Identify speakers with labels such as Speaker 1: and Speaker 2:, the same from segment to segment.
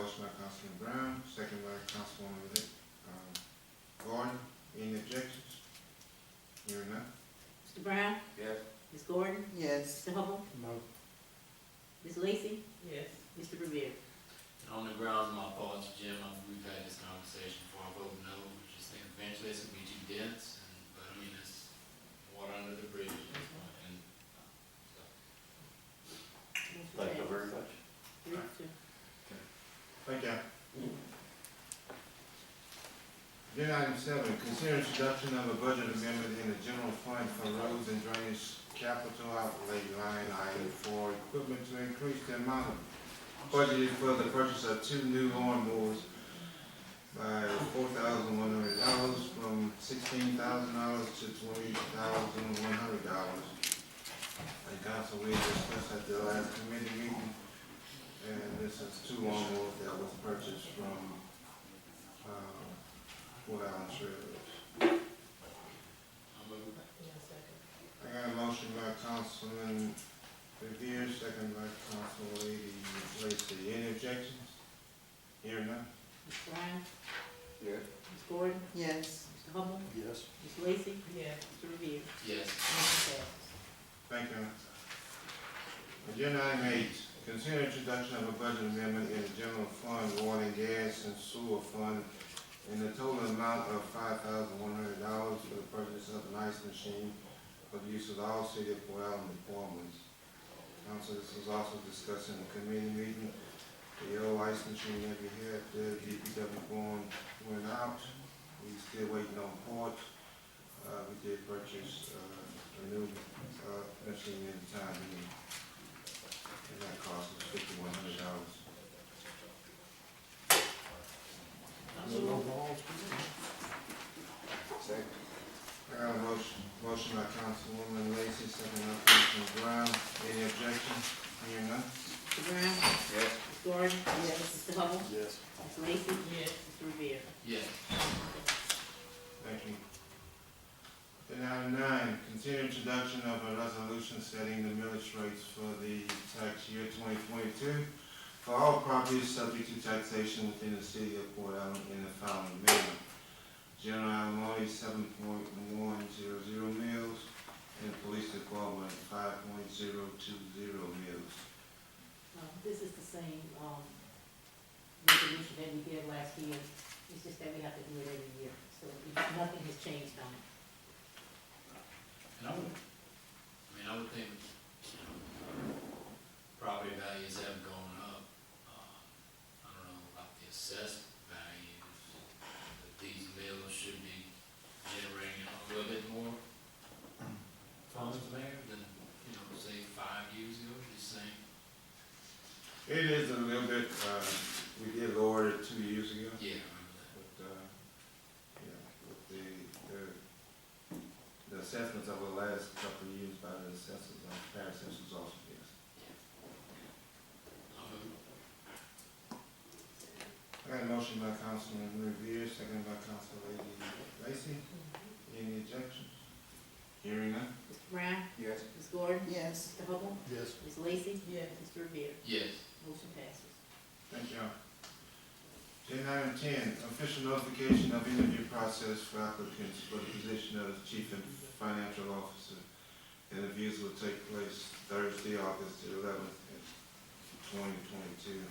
Speaker 1: Councilman Brown, second by Councilwoman, Lick- um, Gordon, any objections? Hearing none,
Speaker 2: Mr. Brown?
Speaker 3: Yes.
Speaker 2: Ms. Gordon?
Speaker 4: Yes.
Speaker 2: Mr. Hubble?
Speaker 5: No.
Speaker 2: Ms. Lacy?
Speaker 4: Yes.
Speaker 2: Mr. Revere?
Speaker 3: On the grounds of my thoughts, Jim, I- we've had this conversation before, I vote no, I just think eventually it's gonna be too dense, and, but I mean, it's water under the bridge, at this point, and, so.
Speaker 6: Thank you very much.
Speaker 2: Three, two.
Speaker 1: thank y'all. Agenda item seven, consider introduction of a budget amendment in the general fund for roads and drainage capital outlay line item for equipment to increase the amount of budgeted for the purchase of two new lawnmowers by four thousand one hundred dollars from sixteen thousand dollars to twenty thousand one hundred dollars. And council, we discussed at the last committee meeting, and this is two lawnmowers that was purchased from, um, Fort Allen Trailers.
Speaker 3: I move.
Speaker 1: I got a motion by Councilman Revere, second by Councilwoman Lacy. Any objections? Hearing none?
Speaker 2: Mr. Brown?
Speaker 6: Yeah.
Speaker 2: Ms. Gordon?
Speaker 4: Yes.
Speaker 2: Mr. Hubble?
Speaker 6: Yes.
Speaker 2: Ms. Lacy?
Speaker 4: Yes.
Speaker 2: Mr. Revere?
Speaker 3: Yes,
Speaker 2: Motion passes.
Speaker 1: Thank you. Agenda item eight, consider introduction of a budget amendment in the general fund, water and gas and sewer fund in the total amount of five thousand one hundred dollars for the purchase of an ice machine for the use of all city of Port Allen departments. Council, this was also discussed in the committee meeting. The old ice machine that we had, the DPW going, went out. We still waiting on port. Uh, we did purchase, uh, a new uh, machine in time, and, and that cost us fifty-one hundred dollars.
Speaker 6: Second.
Speaker 1: I got a Uh, motion, motion by Councilwoman Lacy, second by Councilman Brown, any objection? Hearing none?
Speaker 2: Mr. Brown?
Speaker 6: Yes.
Speaker 2: Ms. Gordon?
Speaker 4: Yes.
Speaker 2: Mr. Hubble?
Speaker 6: Yes.
Speaker 2: Ms. Lacy? Yes. Mr. Revere?
Speaker 3: yes,
Speaker 1: Thank you. Then item nine, consider introduction of a resolution setting the millage rates for the tax year twenty twenty-two for all properties subject to taxation within the city of Port Allen in the following manner. General Almoney, seven point one zero zero mills, and police department, five point zero two zero mills.
Speaker 2: Um, This is the same, um, resolution that we did last year. It's just that we have to do it every year, so it- nothing has changed on it.
Speaker 3: and I would, I mean, I would think, you know, property values have gone up, um, I don't know about the assessed values, but these mills should be generating a little bit more funds, Mayor, than, you know, say, five years ago, just saying.
Speaker 1: It is a little bit, uh, we did lower it two years ago.
Speaker 3: Yeah, I remember that.
Speaker 1: But, uh, yeah, with the, the, the assessments over the last couple of years by the assessors, uh, Paris assessors also, yes.
Speaker 3: I'll move.
Speaker 1: I got a motion by Councilman Revere, second by Councilwoman Lacy. Any objections? Hearing none?
Speaker 2: Mr. Brown?
Speaker 6: Yes.
Speaker 2: Ms. Gordon?
Speaker 4: Yes.
Speaker 2: Mr. Hubble?
Speaker 6: Yes.
Speaker 2: Ms. Lacy?
Speaker 4: Yes.
Speaker 2: Mr. Revere?
Speaker 3: Yes,
Speaker 2: Motion passes.
Speaker 1: Thank y'all. Agenda item ten, official notification of interview process for applicants for the position of chief and financial officer. Interviews will take place Thursday, August eleventh, twenty twenty-two.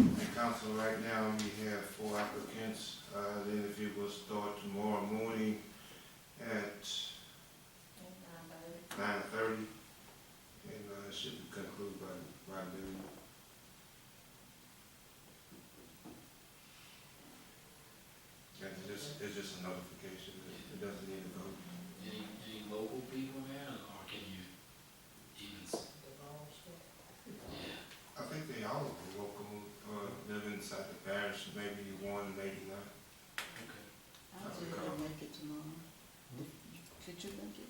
Speaker 1: And council, right now, we have four applicants. Uh, the interview will start tomorrow morning at nine thirty. And, uh, should conclude by, by noon. And it's just, it's just a notification, it doesn't need a vote.
Speaker 3: any, any local people there, or can you even? s- Yeah,
Speaker 1: I think they all are local, uh, live inside the parish, maybe one, maybe not.
Speaker 3: okay.
Speaker 4: I was gonna make it tomorrow. Could you make it?